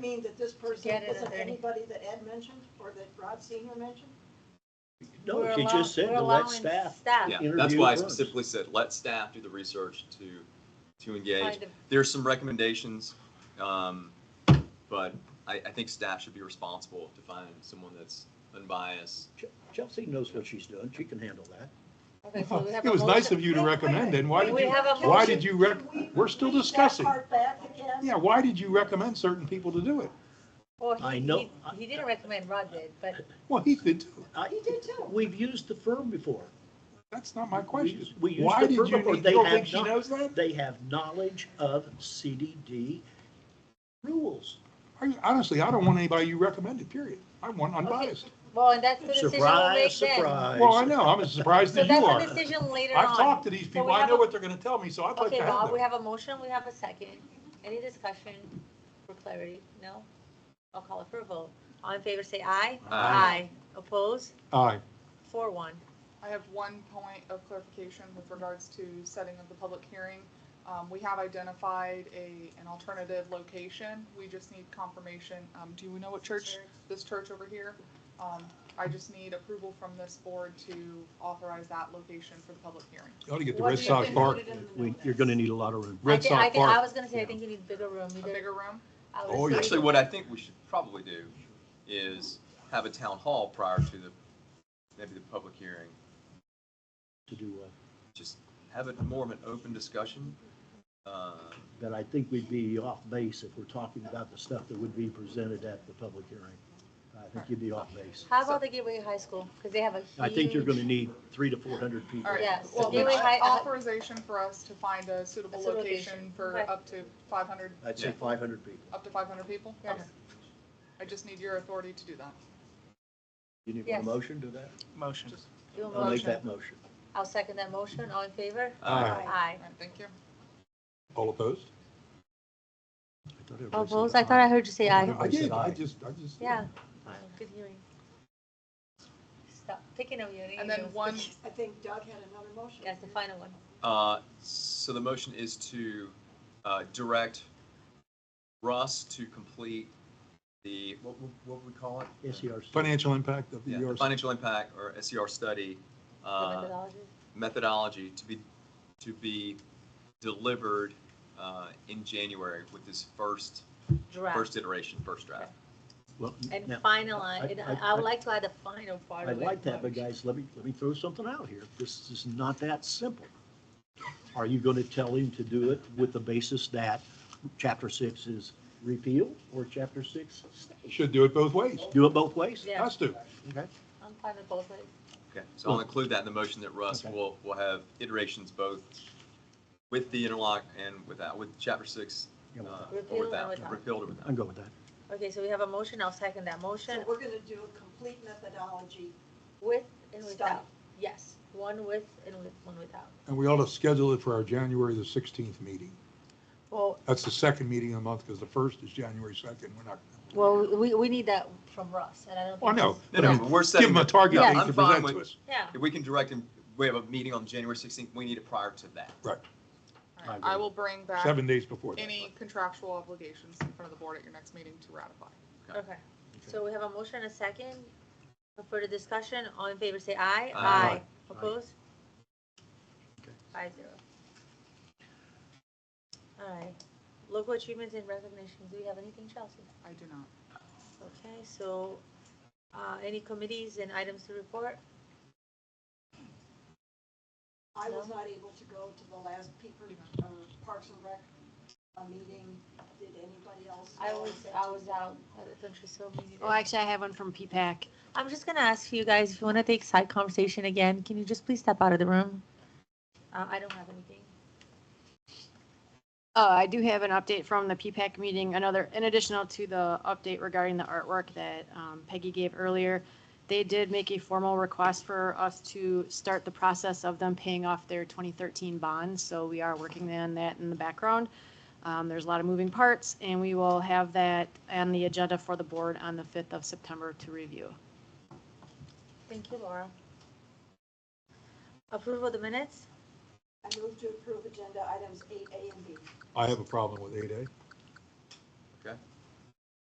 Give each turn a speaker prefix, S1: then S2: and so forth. S1: saying that this person
S2: Get it at
S1: isn't
S2: 30.
S1: anybody that Ed mentioned or that Rob Senior mentioned?
S3: No,
S2: We're
S3: she
S2: allow-
S3: just said
S2: we're
S3: to let
S2: allowing
S3: staff.
S2: Staff.
S4: Yeah, that's
S3: Interview
S4: why I
S3: first.
S4: specifically said, let staff do the research to, to engage.
S2: Kind of-
S4: There's some recommendations, um, but I, I think staff should be responsible to find someone that's unbiased.
S3: Chelsea knows what she's doing. She can handle that.
S2: okay, so we have
S5: It
S2: a
S5: was nice
S2: motion.
S5: of you to
S1: Wait, wait,
S5: recommend
S1: wait.
S5: it. and Why
S2: We-
S5: did
S2: we
S5: you,
S2: have a
S5: why
S2: motion.
S5: did you rec,
S1: Can we
S5: we're still
S1: read that
S5: discussing.
S1: part back again?
S5: Yeah, why did you recommend certain people to do it?
S2: Well, he-
S3: I know-
S2: he- He didn't recommend Rod did, but
S5: Well, he did too.
S2: Oh,
S3: I-
S1: He did too.
S3: We've used the firm before.
S5: That's not my
S3: We
S5: question.
S3: used- we used
S5: Why
S3: the
S5: did
S3: firm
S5: you,
S3: before.
S5: need- you
S3: They
S5: don't
S3: have
S5: think she
S3: not-
S5: knows that?
S3: They have knowledge of CDD rules.
S5: I- Honestly, I don't want anybody you recommended, period. I want unbiased.
S2: Well, and that's the decision we'll
S3: Surprise,
S2: make then.
S3: surprise.
S5: Well, I know, I'm as surprised
S2: So
S5: as you
S2: that's a
S5: are.
S2: decision later on.
S5: I've talked to these
S2: we
S5: people, I
S2: have
S5: know
S2: a-
S5: what they're gonna tell me, so I'd like
S2: Okay,
S5: to have
S2: Bob, we
S5: them.
S2: have a motion, we have a second. Any discussion for clarity? No? I'll call it for a vote. All in favor, say aye.
S4: Aye.
S2: Oppose?
S5: Aye.
S2: Four, one.
S6: I have one point of clarification with regards to setting of the public hearing. Um, we have identified a, an alternative location, we just need confirmation, um, do you know what church, this church over here? Um, I just need approval from this board to authorize that location for the public hearing.
S5: You ought to get to
S1: What
S5: Red
S1: do you
S5: Sox
S1: think
S5: Park.
S1: put it in the
S3: We-
S1: notice?
S3: You're going to need a lot of room.
S2: I
S5: Red
S2: thi- I
S5: Sox
S2: think, I
S5: Park.
S2: was gonna say, I think you need bigger room. You
S6: A
S2: did-
S6: bigger room?
S2: I
S5: Oh,
S2: would
S5: yeah.
S2: say,
S4: Actually, what I think we should probably do is have a town hall prior to the, maybe the public hearing.
S3: To do, uh,
S4: Just have it more of an open discussion. Uh,
S3: but I think we'd be off base if we're talking about the stuff that would be presented at the public hearing. I think you'd be off base.
S2: how about the Gateway High School? Because they have a huge.
S3: I think you're going to need three to 400 people.
S6: All right.
S2: Yes,
S3: Well,
S2: so
S3: then
S2: Gateway High, uh,
S6: Authorization for us to find a suitable
S2: A suitable
S6: location
S2: location.
S6: for
S2: Okay.
S6: up to five hundred,
S3: I'd say 500 people.
S6: up to five hundred people?
S2: Yes.
S6: Okay. I just need your authority to do that.
S3: You need a
S2: Yes.
S3: motion to that?
S7: Motion.
S2: do a
S3: I'll make
S2: motion.
S3: that motion.
S2: I'll second that motion. All in favor?
S5: Aye.
S2: Aye.
S6: All right, thank you.
S5: All opposed?
S3: I thought everybody said
S2: Oppose? Oh, I thought I heard you say aye.
S5: No, I did, I
S3: aye.
S5: just, I just.
S2: Yeah.
S3: Aye.
S2: Good hearing. Stop picking on you.
S6: And then one,
S1: I think Doug had another motion.
S2: That's the final one.
S4: Uh, So the motion is to uh, direct Russ to complete the, what would what would we call it?
S3: SERC.
S5: Financial impact of the E
S4: Yeah, the
S5: ERC.
S4: Financial impact or SER study
S2: The
S4: uh,
S2: methodology.
S4: methodology to be, to be delivered uh, in January with this first,
S2: draft
S4: first iteration, first draft.
S3: Well,
S2: and
S3: now, I-
S2: finalize, and I
S3: I-
S2: I would
S3: I-
S2: like to add the final part
S3: I
S2: of it.
S3: like that, but guys, let me, let me throw something out here. This is not that simple. Are you going to tell him to do it with the basis that chapter six is repealed or chapter six stays?
S5: Should do it both ways.
S3: Do it both ways?
S2: Yeah,
S5: Has to.
S3: Okay.
S2: I'm fine with both ways.
S4: Okay, so I'll include that in the motion that Russ
S3: Okay.
S4: will, will have iterations both with the interlock and without, with chapter six.
S3: Yeah, well,
S4: uh,
S2: Repeal
S4: or
S2: and
S4: without,
S2: without.
S4: repealed or without.
S3: I'm going with that.
S2: Okay, so we have a motion, I'll second that motion
S1: So we're gonna do a complete methodology
S2: with and
S1: Stop.
S2: without. Yes, one with and with, one without.
S5: And we ought to schedule it for our January the 16th meeting.
S2: Well,
S5: That's the second meeting of the month because the first is January 2nd. We're not.
S2: well, we, we need that from Russ, and I don't.
S5: Well, I
S2: think
S5: know.
S2: he's-
S4: No,
S5: but
S4: no,
S5: I mean,
S4: but we're
S5: Give
S4: setting
S5: them a
S4: the-
S5: target
S2: Yeah,
S5: date
S4: I'm
S5: to
S4: fine
S5: present
S4: with-
S5: to us.
S2: Yeah,
S4: If we can direct him, we have a meeting on January 16th, we need it prior to that.
S5: Right,
S6: all right,
S3: I
S6: I
S3: agree.
S6: will bring back.
S5: seven days before that.
S6: any contractual obligations in front of the board at your next meeting to ratify.
S2: okay. So we have a motion, and a second. For further discussion, all in favor, say aye.
S4: Aye.
S2: Opposed?
S3: Okay.
S2: Five zero. All right. Local achievements and recognitions, do we have anything, Chelsea?
S6: I do not.
S2: Okay, so, uh, any committees and items to report?
S1: I was
S2: No?
S1: not able to go to the last Peeper, uh, Parks and Rec, uh, meeting. Did anybody else?
S2: I
S1: go?
S2: was, I was out at the country so meeting.
S8: Oh, actually, I have one from P-PAC.
S2: I'm just gonna ask you guys, if you wanna take side conversation again, can you just please step out of the room? Uh, I don't have anything.
S8: Uh, I do have an update from the P-PAC meeting, another, in additional to the update regarding the artwork that um, Peggy gave earlier. They did make a formal request for us to start the process of them paying off their 2013 bonds, so we are working on that in the background. Um, There's a lot of moving parts, and we will have that on the agenda for the board on the 5th of September to review.
S2: Thank you, Laura. Approval of the minutes?
S1: I moved to approve agenda items eight A and B.
S5: I have a problem with 8A.